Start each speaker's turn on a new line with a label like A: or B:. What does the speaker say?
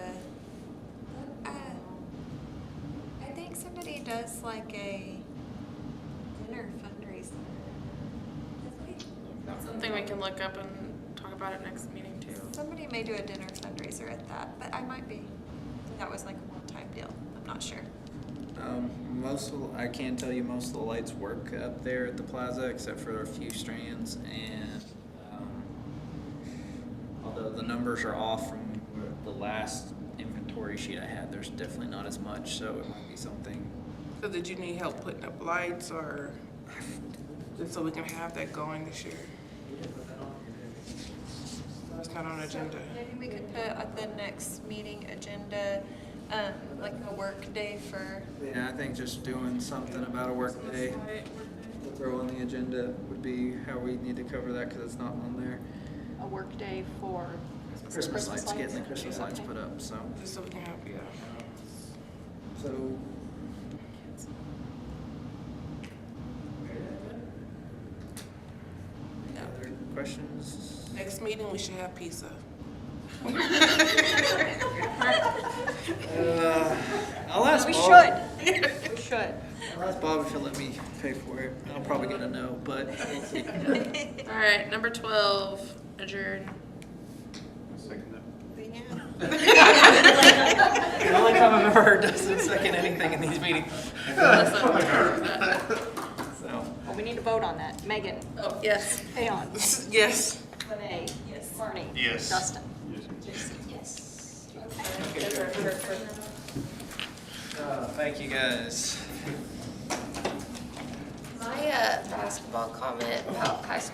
A: uh, discuss like a dinner fundraiser?
B: Something we can look up and talk about at next meeting too.
A: Somebody may do a dinner fundraiser at that, but I might be. That was like a one-time deal. I'm not sure.
C: Um, most of, I can tell you most of the lights work up there at the plaza except for a few strands and um, although the numbers are off from the last inventory sheet I had, there's definitely not as much, so it might be something.
D: So did you need help putting up lights or just so we can have that going this year? That's not on agenda.
A: Maybe we could put at the next meeting agenda, um, like a work day for,
C: Yeah, I think just doing something about a work day, throw on the agenda would be how we need to cover that because it's not on there.
E: a workday for
C: Christmas lights, getting the Christmas lights
E: Okay.
C: put up, so.
D: Just so we can have, yeah.
C: So. Other questions?
D: Next meeting, we should have pizza.
C: Uh, I'll ask
E: We
C: Bob.
E: should, we should.
C: I'll ask Bob if he'll let me pay for it. I'll probably get a no, but we'll see.
B: All right, number twelve, adjourn.
F: Second that.
A: yeah.
C: The only time I've ever heard Dustin second anything in these meetings,
B: Unless I'm part of that.
C: so.
E: Well, we need to vote on that. Megan,
B: Oh, yes.
E: Leon,
D: Yes.
E: Renee, Barney.
F: Yes.
E: Dustin.
C: Uh, Thank you, guys.
G: My uh, basketball comment about high school